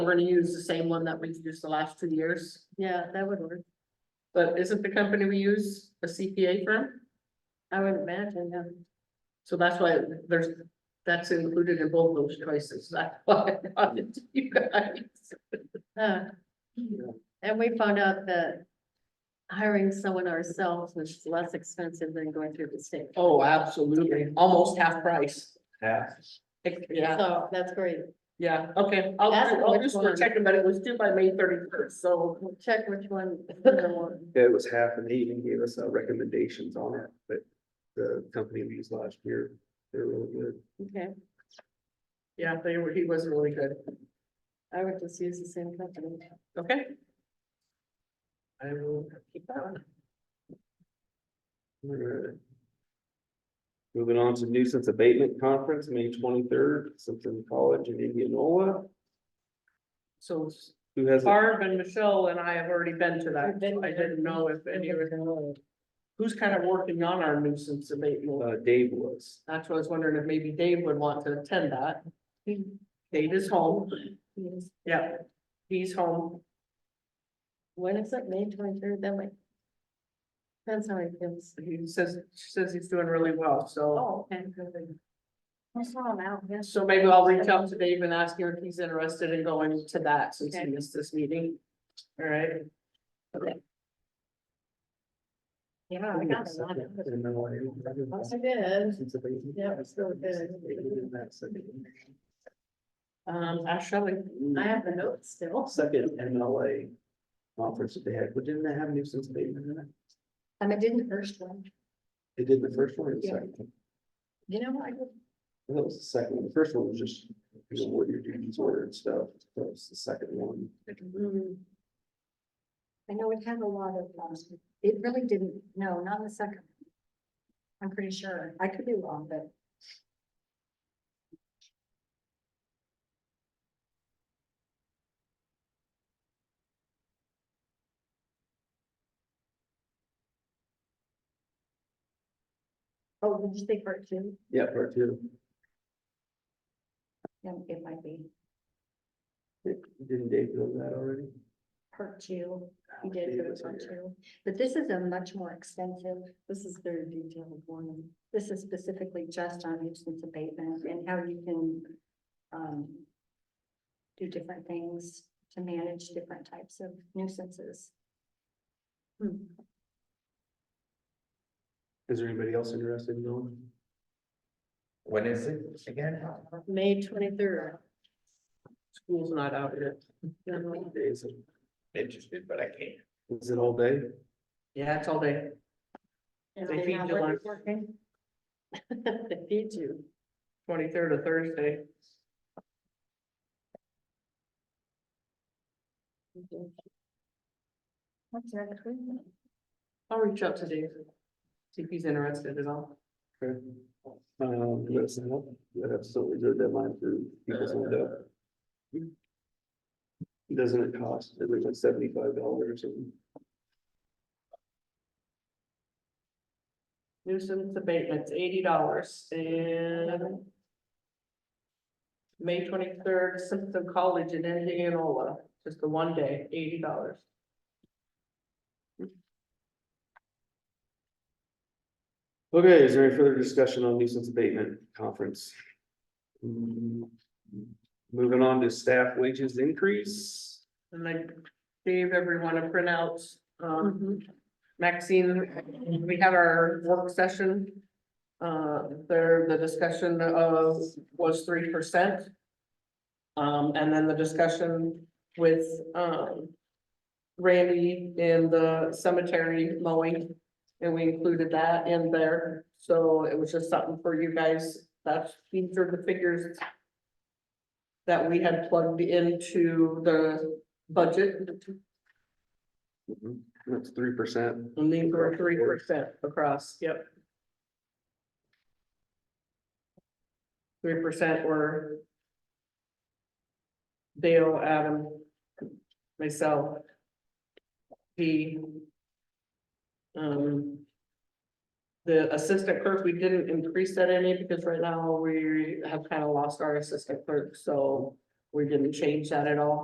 We're gonna use the same one that we've used the last two years, Yeah, that would work. but isn't the company we use a CPA firm? I would imagine, yeah. So that's why there's, that's included in both those choices, that's why I brought it to you guys. Uh, And we found out that hiring someone ourselves was less expensive than going through the state. Oh, absolutely, almost half price. Yeah. Yeah, So that's great. yeah, okay, I'll, That's I'll which just one? check it, but it was due by May thirty first, so. We'll check which one. the one. It was half and they even gave us uh, recommendations on it, but the company we used last year, they're really good. Okay, Yeah, they were, he was really good, I would just use the same company. okay? I will keep that one. Alright. Moving on to nuisance abatement conference, May twenty-third, Simpson College in Indianola. So Who has, it? Barb and Michelle and I have already been to that, We've been I didn't know if any of who's kind of working on our nuisance abatement? uh, Dave was. That's what I was wondering if maybe Dave would want to attend that. Dave is home, yeah, he's home, When is it? May twenty-third, that might. Depends how it feels. he says, she says he's doing really well, so. Oh, okay. I saw him out, yes. So maybe I'll reach out to Dave and ask him if he's interested in going to that since he Okay. missed this meeting. All right, Yeah, I Oh, got a lot of it. Yes, I Nuisance did. abatement. Yeah, it's really good. They did that second. um, Ash Shelley, I have the notes still. Second MLA conference that they had, but didn't they have nuisance abatement in it? Um, I did the first one. They did the first one or the Yeah. second? You know, I would That was the second one. The first one was just, you know, what your duties were and stuff. That was the second one. Mm. I know it had a lot of, um, it really didn't, no, not the second. one. I'm pretty sure, I could be wrong, but. Oh, did you say part two? Yeah, part two. Yeah, it might be Didn't Dave know that already? part two. You Dave did go was to here. one too, but this is a much more extensive, this is very detailed warning. This is specifically just on nuisance abatement and how you can um. Do different things to manage different types of nuisances. Hmm, Is there anybody else interested in knowing? When is it again? May twenty-third. school's not out yet. Is it, Interested, but I can't. is it all day? Yeah, it's all day. They feed you lunch. They feed you. Twenty-third of Thursday. What's that? I'll reach out to Dave. See if he's interested at all. Okay. Um, you gotta sign up. You gotta have so is there a deadline for people to sign up? Uh, Doesn't it cost at least like seventy-five dollars and Nuisance abatement's eighty dollars and. May twenty-third, Simpson College in Indianola, just the one day, eighty dollars. Okay, is there any further discussion on nuisance abatement conference? Mm, Moving on to staff wages increase. And I gave everyone a printout. Um, Maxine, we had our work session. Uh, there, the discussion of was three percent. Um, and then the discussion with, um. Randy in the cemetery mowing, and we included that in there. So it was just something for you guys. That's, these are the figures. That we had plugged into the budget That's three percent. and these were three percent across, yep. Three percent were Dale, Adam, myself, the um, the assistant clerk, we didn't increase that any because right now we have kind of lost our assistant clerk, so we didn't change that at all.